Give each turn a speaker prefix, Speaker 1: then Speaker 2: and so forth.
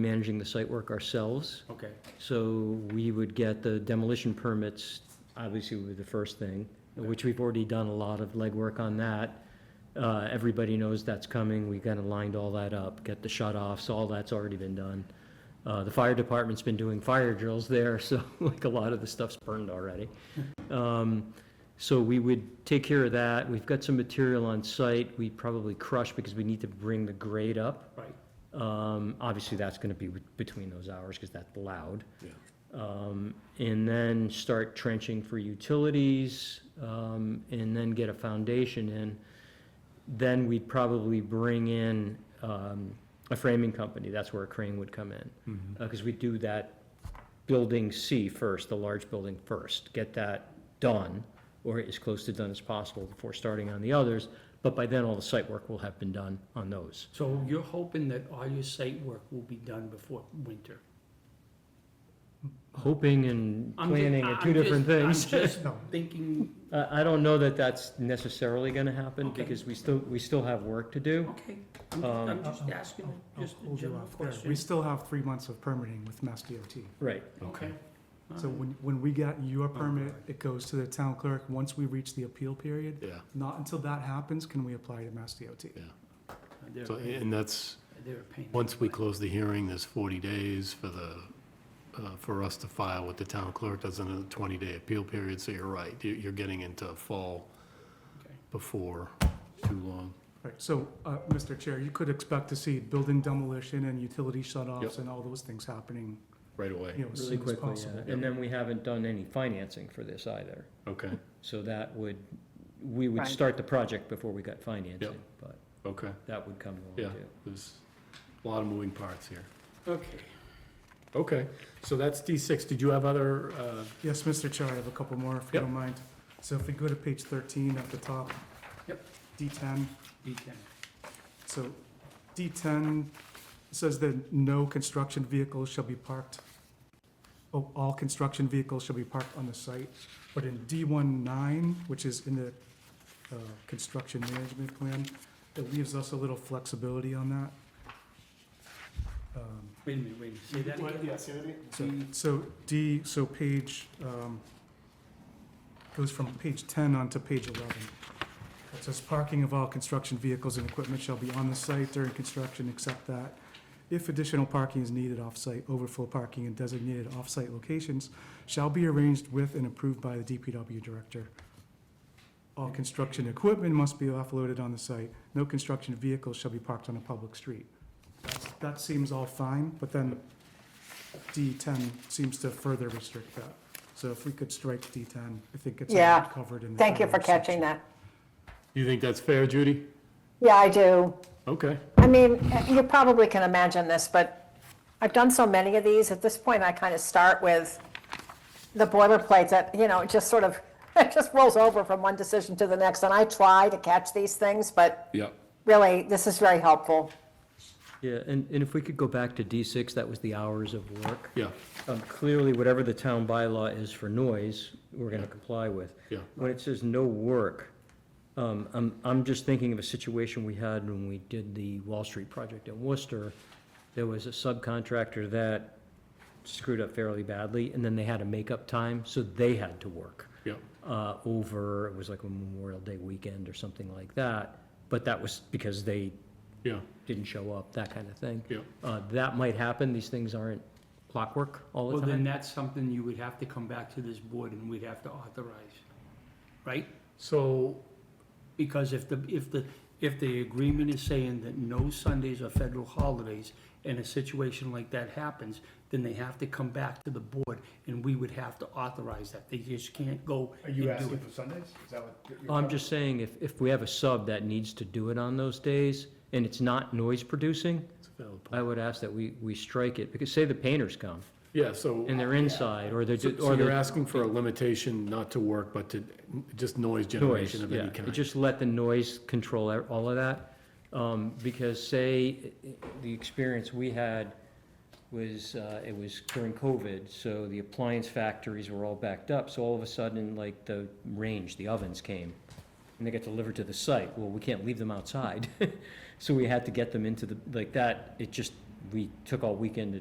Speaker 1: managing the site work ourselves.
Speaker 2: Okay,
Speaker 1: So we would get the demolition permits, obviously would be the first thing, which we've already done a lot of legwork on that. Uh, everybody knows that's coming, we kind of lined all that up, get the shut offs, all that's already been done. Uh, the fire department's been doing fire drills there, so like a lot of the stuff's burned already. Um, so we would take care of that, we've got some material on site, we probably crush because we need to bring the grade up.
Speaker 2: right,
Speaker 1: Um, obviously, that's gonna be with- between those hours, because that's allowed.
Speaker 2: Yeah.
Speaker 1: Um, and then start trenching for utilities, um, and then get a foundation in. Then we'd probably bring in, um, a framing company, that's where a crane would come in. Uh, cause we do that building C first, the large building first, get that done, or as close to done as possible before starting on the others, but by then, all the site work will have been done on those.
Speaker 2: so you're hoping that all your site work will be done before winter?
Speaker 1: hoping and
Speaker 2: I'm ju-
Speaker 1: planning are two
Speaker 2: I'm
Speaker 1: different
Speaker 2: just-
Speaker 1: things. Uh,
Speaker 2: I'm just thinking,
Speaker 1: I, I don't know that that's necessarily gonna happen,
Speaker 2: Okay.
Speaker 1: because we still, we still have work to do.
Speaker 2: okay, I'm,
Speaker 1: Um,
Speaker 2: I'm just
Speaker 3: I'll-
Speaker 2: asking,
Speaker 3: I'll- I'll
Speaker 2: just a
Speaker 3: Oh, hold you
Speaker 2: general
Speaker 3: off there.
Speaker 2: question.
Speaker 3: We still have three months of permitting with Mass DOT.
Speaker 1: Right,
Speaker 2: Okay. all
Speaker 3: So
Speaker 2: right.
Speaker 3: when, when we get your
Speaker 2: Oh,
Speaker 3: permit, it goes to the town clerk. Once we reach the appeal period,
Speaker 4: Yeah,
Speaker 3: not until that happens can we apply to Mass DOT.
Speaker 2: Uh, They're a
Speaker 4: so,
Speaker 2: pain-
Speaker 4: and that's,
Speaker 2: they're a pain in
Speaker 4: once we
Speaker 2: the
Speaker 4: close the hearing, there's 40 days for the, uh, for us to file with the town clerk, that's another 20-day appeal period, so you're right, You- you're getting into fall
Speaker 2: butt. Okay.
Speaker 4: before too long.
Speaker 3: Right, so, uh, Mr. Chair, you could expect to see building demolition and utility shut-offs
Speaker 4: Yep.
Speaker 3: and all those things happening,
Speaker 4: Right
Speaker 3: you
Speaker 4: away,
Speaker 3: know,
Speaker 1: really
Speaker 3: as soon as
Speaker 1: quickly,
Speaker 3: possible.
Speaker 1: yeah. And then we haven't done any financing for this either,
Speaker 4: okay,
Speaker 1: so that would, we would
Speaker 5: Right.
Speaker 1: start the project before we got financing, but
Speaker 4: okay,
Speaker 1: that would come
Speaker 4: Yeah.
Speaker 1: along too.
Speaker 4: there's a lot of moving parts here.
Speaker 2: Okay,
Speaker 4: Okay, so that's D6, did you have other, uh,
Speaker 3: Yes, Mr. Chair, I have a couple more, if you
Speaker 4: Yep.
Speaker 3: don't mind. So if we go to page thirteen at the top.
Speaker 2: Yep.
Speaker 3: D ten.
Speaker 2: D ten,
Speaker 3: So D10 says that no construction vehicles shall be parked, oh, all construction vehicles shall be parked on the site. But in D19, which is in the uh, construction management plan, it leaves us a little flexibility on that. Um,
Speaker 2: wait a minute, wait a minute, say that again?
Speaker 3: so-
Speaker 2: D-
Speaker 3: So D, so page, um, goes from page 10 onto page 11. It says, "Parking of all construction vehicles and equipment shall be on the site during construction, except that if additional parking is needed off-site, overflow parking in designated off-site locations shall be arranged with and approved by the DPW director. All construction equipment must be offloaded on the site. No construction vehicles shall be parked on a public street." That's- That seems all fine, but then D10 seems to further restrict that. So if we could strike D10, I think it's
Speaker 5: Yeah.
Speaker 3: already covered in the.
Speaker 5: Thank you for
Speaker 3: earlier section.
Speaker 5: catching that.
Speaker 4: you think that's fair, Judy?
Speaker 5: Yeah, I do.
Speaker 4: Okay,
Speaker 5: I mean, you probably can imagine this, but I've done so many of these, at this point, I kind of start with the boilerplate that, you know, it just sort of, it just rolls over from one decision to the next, and I try to catch these things, but
Speaker 4: yep,
Speaker 5: really, this is very helpful.
Speaker 1: Yeah, and, and if we could go back to D six, that was the hours of work.
Speaker 4: yeah,
Speaker 1: Um, clearly, whatever the town bylaw is for noise, we're gonna comply with.
Speaker 4: yeah,
Speaker 1: When it says no work, um, I'm, I'm just thinking of a situation we had when we did the Wall Street project in Worcester. There was a subcontractor that screwed up fairly badly, and then they had a makeup time, so they had to work
Speaker 4: yep,
Speaker 1: uh, over, it was like a Memorial Day weekend or something like that. But that was because they
Speaker 4: yeah,
Speaker 1: didn't show up, that kind of thing.
Speaker 4: yeah,
Speaker 1: Uh, That might happen, these things aren't clockwork all
Speaker 2: Well,
Speaker 1: the
Speaker 2: then
Speaker 1: time.
Speaker 2: that's something you would have to come back to this board and we'd have to authorize, right?
Speaker 4: so,
Speaker 2: Because if the, if the, if the agreement is saying that no Sundays are federal holidays, and a situation like that happens, then they have to come back to the board, and we would have to authorize that. They just can't go
Speaker 6: Are
Speaker 2: and do
Speaker 6: you asking
Speaker 2: it.
Speaker 6: for Sundays? Is that what? you're- you're
Speaker 1: I'm just saying, if, if we have a sub that needs to do it on those days, and it's not noise producing,
Speaker 4: it's a valid point.
Speaker 1: I would ask that we, we strike it, because say the painters come,
Speaker 4: yeah, so.
Speaker 1: and they're inside, or they're,
Speaker 4: So
Speaker 1: ju-
Speaker 4: so
Speaker 1: or
Speaker 4: you're
Speaker 1: they're
Speaker 4: asking for a limitation not to work, but to, just
Speaker 1: noise,
Speaker 4: noise generation of
Speaker 1: yeah.
Speaker 4: any kind?
Speaker 1: Just let the noise control e- all of that, um, because say, i- i- the experience we had was, uh, it was during COVID, so the appliance factories were all backed up, so all of a sudden, like, the range, the ovens came, and they got delivered to the site, well, we can't leave them outside. So we had to get them into the, like that, it just we took all weekend to